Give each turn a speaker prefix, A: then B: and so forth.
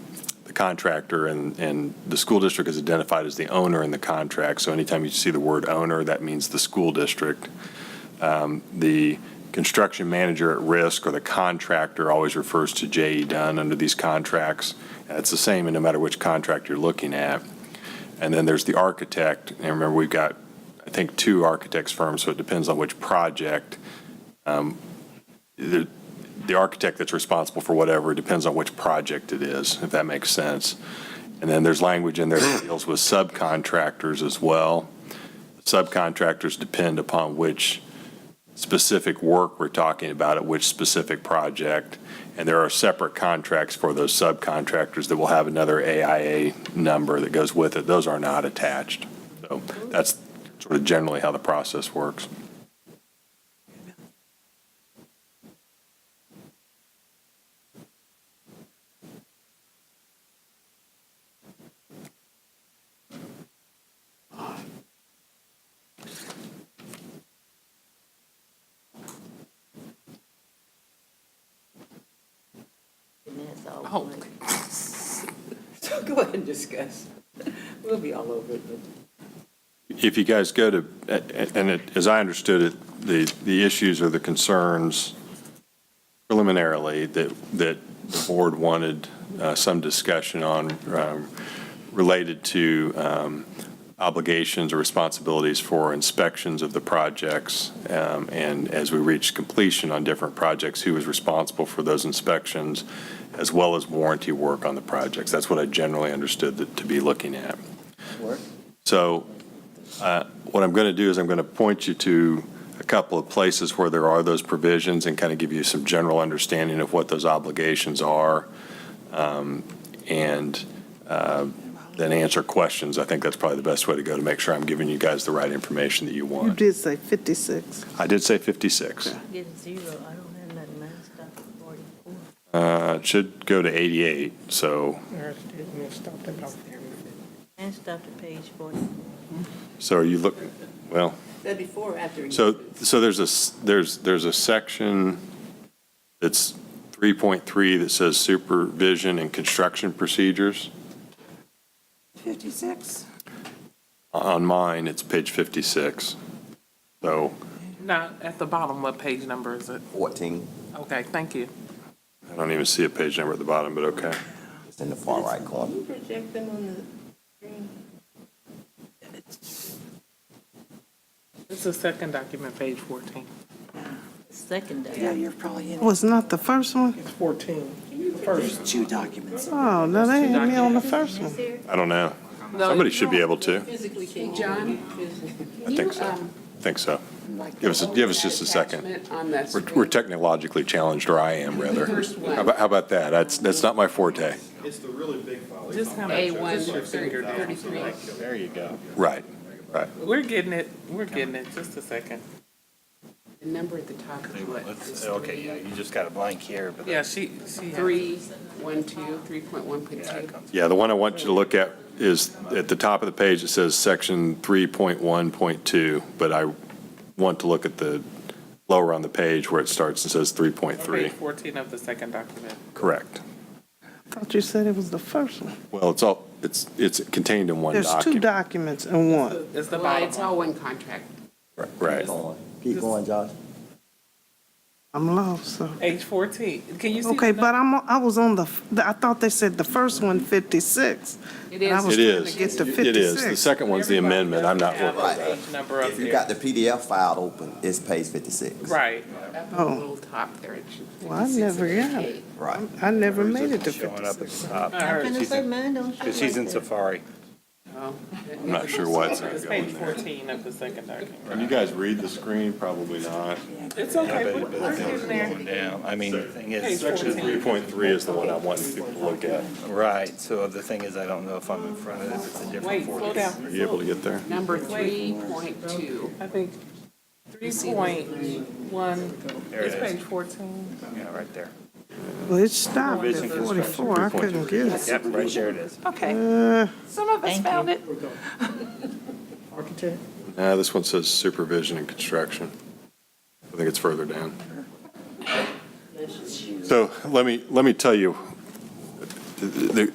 A: contractor, and, and the school district is identified as the owner in the contract. So anytime you see the word owner, that means the school district. Um, The construction manager at risk or the contractor always refers to J.E. Dunn under these contracts. It's the same in no matter which contract you're looking at. And then there's the architect, and remember, we've got, I think, two architects firms, so it depends on which project. Um, The the architect that's responsible for whatever, it depends on which project it is, if that makes sense. And then there's language in there that deals with subcontractors as well. Subcontractors depend upon which specific work we're talking about at which specific project. And there are separate contracts for those subcontractors that will have another AIA number that goes with it. Those are not attached. So that's sort of generally how the process works.
B: Minutes all
C: Oh.
B: one.
C: So go ahead and discuss. We'll be all over it, but
A: If you guys go to, and it- as I understood it, the, the issues or the concerns preliminarily that, that the board wanted uh, some discussion on um, related to um, obligations or responsibilities for inspections of the projects. um, And as we reach completion on different projects, who is responsible for those inspections, as well as warranty work on the projects. That's what I generally understood that- to be looking at.
C: work.
A: So uh, what I'm going to do is I'm going to point you to a couple of places where there are those provisions and kind of give you some general understanding of what those obligations are um, and uh, then answer questions. I think that's probably the best way to go to make sure I'm giving you guys the right information that you
D: You
A: want.
D: did say 56.
A: I did say 56.
B: Getting zero, I don't have nothing last up to forty-four.
A: Uh, It should go to 88, so,
B: And stop to page forty-four.
A: so are you looking, well,
C: That before or after?
A: So, so there's a, s- there's, there's a section that's 3.3 that says supervision and construction procedures.
E: 56?
A: On mine, it's page 56. So
F: Now, at the bottom, what page number is it?
E: 14,
F: Okay, thank you.
A: I don't even see a page number at the bottom, but okay.
E: it's in the far right corner.
C: Can you project them on the screen?
F: It's the second document, page 14.
E: Yeah,
B: Secondary.
E: you're probably in,
D: Was not the first one?
G: It's 14.
E: there's two documents.
D: Oh, no, they ain't me on the first one.
A: I don't know. Somebody should be able to.
C: Physically can't.
H: John,
A: I think so. I Think so. Give us, a- give us just a second.
H: um, attachment on that
A: We're
H: screen.
A: we're technologically challenged, or I am rather. How about, how about that? That's, that's not my forte.
I: It's the really big file.
F: Just kind
H: A1,
F: of, your finger down.
H: 33.
I: There you go.
A: Right, right.
F: We're getting it, we're getting it, just a second.
H: The number at the top is what? It's
I: Okay, yeah, you just got a blank here, but.
F: Yeah, she, she. has-
H: Three, one, two, three point one point
I: Yeah,
H: two.
I: it comes.
A: Yeah, the one I want you to look at is, at the top of the page, it says section 3.1.2, but I want to look at the, lower on the page where it starts and says
F: Page
A: 3.3.
F: 14 of the second document.
A: Correct.
D: Thought you said it was the first one.
A: Well, it's all, it's, it's contained in one
D: There's two
A: document.
D: documents in one.
F: It's the
H: Well, it's
F: bottom one.
H: all one contract.
A: Right.
E: Keep going. Keep going, Josh.
D: I'm lost, so.
F: Page 14. Can you see?
D: Okay,
F: the
D: but I'm, I was on the, I thought they said the first one 56.
H: It
D: And I
H: is.
D: was
A: It
D: trying
A: is.
D: to get to
A: It is. The
D: 56.
A: second one's the
F: Everybody
A: amendment. I'm not
F: doesn't
A: working
F: have
A: on
F: a
A: that.
F: Page number up
E: If you
F: there.
E: got the PDF file open, it's page 56.
F: Right.
H: Up at the
D: Oh.
H: little top there. it should be
D: Well, I
H: 56
D: never
H: and
D: got it.
H: 58.
E: Right.
D: I never made it to
I: Showing up at
D: 56.
I: the top.
B: I'm gonna say mine don't show
I: Because she's in
B: like that.
I: Safari.
H: Oh, that
A: I'm not
H: never
A: sure
H: was-
A: why it's
F: It's
A: not
F: page
A: going there.
F: 14 of the second document.
A: Can you guys read the screen? Probably not.
F: It's okay, we're we're getting there.
I: Going down. I mean, the thing is,
A: Section 3.3 is the one I want people to look at.
I: right, so the thing is, I don't know if I'm in front of it, if it's a different
F: Wait, slow
I: form.
A: Are
F: down.
A: you able to get there?
H: Number three point two.
F: I think three point one,
I: There
F: it's
I: it is.
F: page fourteen.
I: Yeah, right there.
D: Well, it stopped at 44. I couldn't get it.
I: Yep, right there it is.
D: Uh,
E: Okay, some of
B: Thank you.
E: it.
G: Architect?
A: Uh, this one says supervision and construction. I think it's further down. So let me, let me tell you, the,